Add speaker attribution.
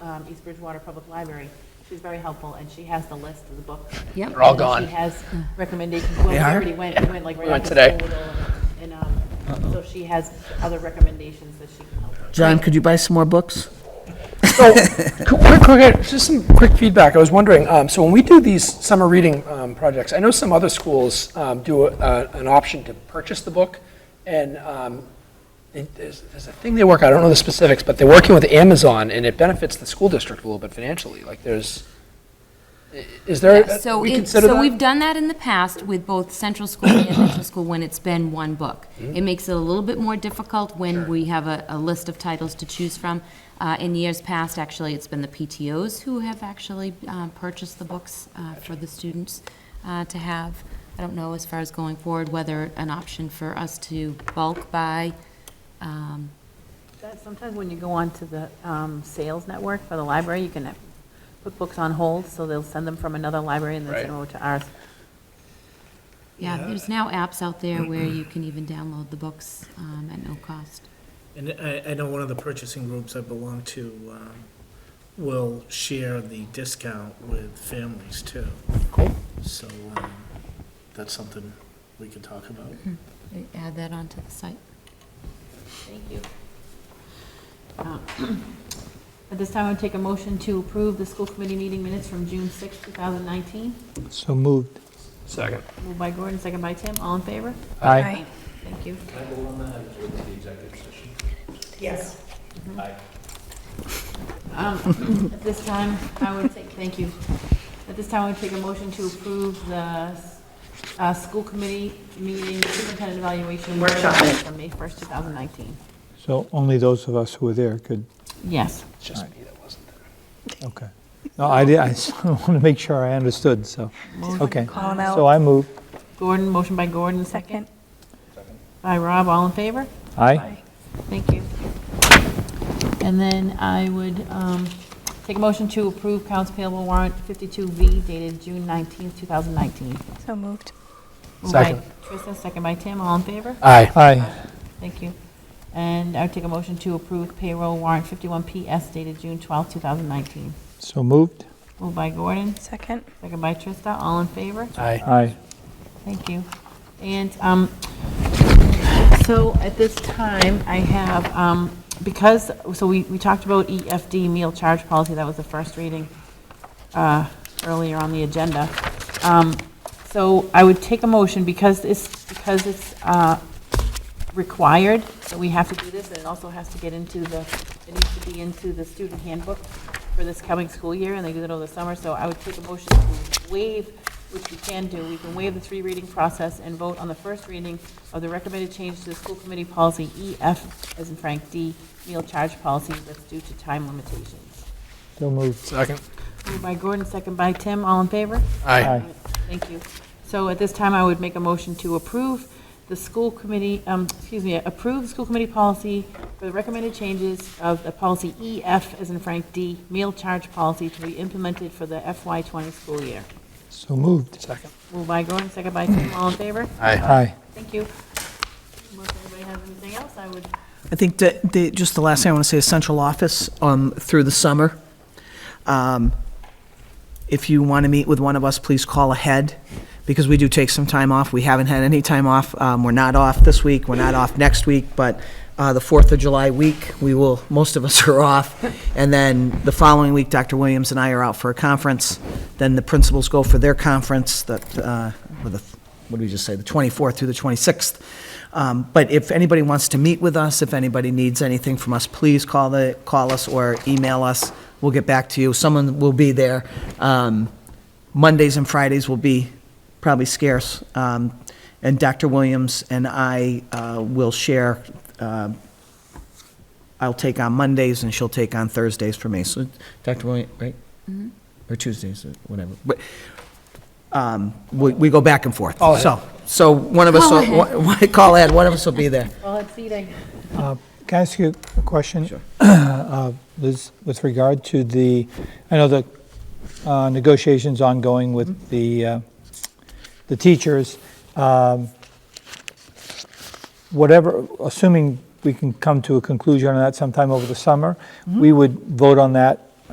Speaker 1: um, East Bridgewater Public Library. She's very helpful, and she has the list of the books.
Speaker 2: Yep.
Speaker 3: They're all
Speaker 1: And
Speaker 3: gone.
Speaker 1: She has recommendations. Well, we
Speaker 3: are?
Speaker 1: already went, we went like right
Speaker 3: We went
Speaker 1: after
Speaker 3: today.
Speaker 1: school with all of them. And, um, so she has other recommendations that she can help. with.
Speaker 4: John, could you buy some more books?
Speaker 3: So, quick, quick, just some quick feedback. I was wondering, um, so when we do these summer reading um, projects, I know some other schools um, do a, a, an option to purchase the book, and um, it, there's, there's a thing they work. I don't know the specifics, but they're working with Amazon, and it benefits the school district a little bit financially. Like, there's, i- is there?
Speaker 2: Yeah, Uh, So,
Speaker 3: we
Speaker 2: it-
Speaker 3: consider
Speaker 2: so
Speaker 3: that?
Speaker 2: we've done that in the past with both central school and elementary school when it's been one book.
Speaker 3: Mm-hmm.
Speaker 2: It makes it a little bit more difficult when we have a, a list of titles to choose from. Uh, in years past, actually, it's been the PTOs who have actually, uh, purchased the books, uh, for the students, uh, to have. I don't know as far as going forward, whether an option for us to bulk buy, um,
Speaker 1: That- Sometimes when you go on to the um, sales network for the library, you can uh, put books on hold, so they'll send them from another library and then send
Speaker 3: Right.
Speaker 1: them over to ours.
Speaker 2: yeah, there's now apps out there where you can even download the books, um, at no cost.
Speaker 5: And I, I know one of the purchasing groups I belong to um, will share the discount with families too.
Speaker 3: Cool.
Speaker 5: So um, that's something we can talk about.
Speaker 2: Add that onto the site.
Speaker 1: Thank you. Uh, At this time, I would take a motion to approve the school committee meeting minutes from June 6, 2019.
Speaker 6: So moved.
Speaker 3: Second.
Speaker 1: Moved by Gordon, second by Tim, all in favor?
Speaker 6: Aye.
Speaker 1: Thank you. Yes. Mm-hmm. Um, At this time, I would take, thank you. At this time, I would take a motion to approve the uh, school committee meeting superintendent evaluation workshop minutes from May 1st, 2019.
Speaker 6: So only those of us who were there could,
Speaker 1: Yes.
Speaker 3: It's just me that wasn't there.
Speaker 6: okay. No, I did, I just want to make sure I understood, so, okay.
Speaker 7: Call him out.
Speaker 6: So I move,
Speaker 1: Gordon, motion by Gordon, second. By Rob, all in favor?
Speaker 6: aye.
Speaker 1: Thank you. And then I would um, take a motion to approve Council payable warrant 52V dated June 19th, 2019.
Speaker 7: So moved.
Speaker 1: Moved by
Speaker 3: Second.
Speaker 1: Trista, second by Tim, all in favor?
Speaker 3: Aye.
Speaker 6: Aye,
Speaker 1: Thank you. And I would take a motion to approve payroll warrant 51PS dated June 12th, 2019.
Speaker 6: so moved,
Speaker 1: Moved by Gordon,
Speaker 7: Second.
Speaker 1: second by Trista, all in favor?
Speaker 3: Aye.
Speaker 6: aye.
Speaker 1: Thank you. And um, so at this time, I have, um, because, so we we talked about EFD meal charge policy, that was the first reading uh, earlier on the agenda. Um, So I would take a motion, because it's, because it's uh, required, that we have to do this, and it also has to get into the, it needs to be into the student handbook for this coming school year, and they do it over the summer, so I would take a motion to waive, which we can do, we can waive the three reading process and vote on the first reading of the recommended change to the school committee policy EF, as in Frank D, meal charge policy that's due to time limitations.
Speaker 6: So moved,
Speaker 3: Second.
Speaker 1: Moved by Gordon, second by Tim, all in favor?
Speaker 3: Aye.
Speaker 6: aye.
Speaker 1: Thank you. So at this time, I would make a motion to approve the school committee, um, excuse me, approve the school committee policy for the recommended changes of the policy EF, as in Frank D, meal charge policy to be implemented for the FY '20 school year.
Speaker 6: So moved,
Speaker 3: Second.
Speaker 1: Moved by Gordon, second by Tim, all in favor?
Speaker 3: Aye.
Speaker 6: aye.
Speaker 1: Thank you. Unless anybody has anything else, I would
Speaker 4: I think that, the- just the last thing I want to say is central office um, through the summer. Um, If you want to meet with one of us, please call ahead, because we do take some time off. We haven't had any time off. Um, We're not off this week, we're not off next week, but uh, the 4th of July week, we will, most of us are off. And then the following week, Dr. Williams and I are out for a conference. Then the principals go for their conference, that, uh, with the, what did we just say, the 24th through the 26th. Um, But if anybody wants to meet with us, if anybody needs anything from us, please call the, call us or email us. We'll get back to you. Someone will be there. Um, Mondays and Fridays will be probably scarce. Um, And Dr. Williams and I uh, will share, uh, I'll take on Mondays and she'll take on Thursdays for me. So, Dr. Williams, right? Or Tuesdays, or whatever. But, um, We we go back and forth.
Speaker 6: Oh,
Speaker 3: Call ahead.
Speaker 4: So, so one of us,
Speaker 2: Call
Speaker 4: will- one- call Ed, one of us will be there.
Speaker 1: call it seating.
Speaker 6: Can I ask you a question?
Speaker 4: Sure.
Speaker 6: Uh, Liz, with regard to the, I know the uh, negotiations ongoing with the, uh, the teachers. um, Whatever, assuming we can come to a conclusion on that sometime over the summer, we would vote on that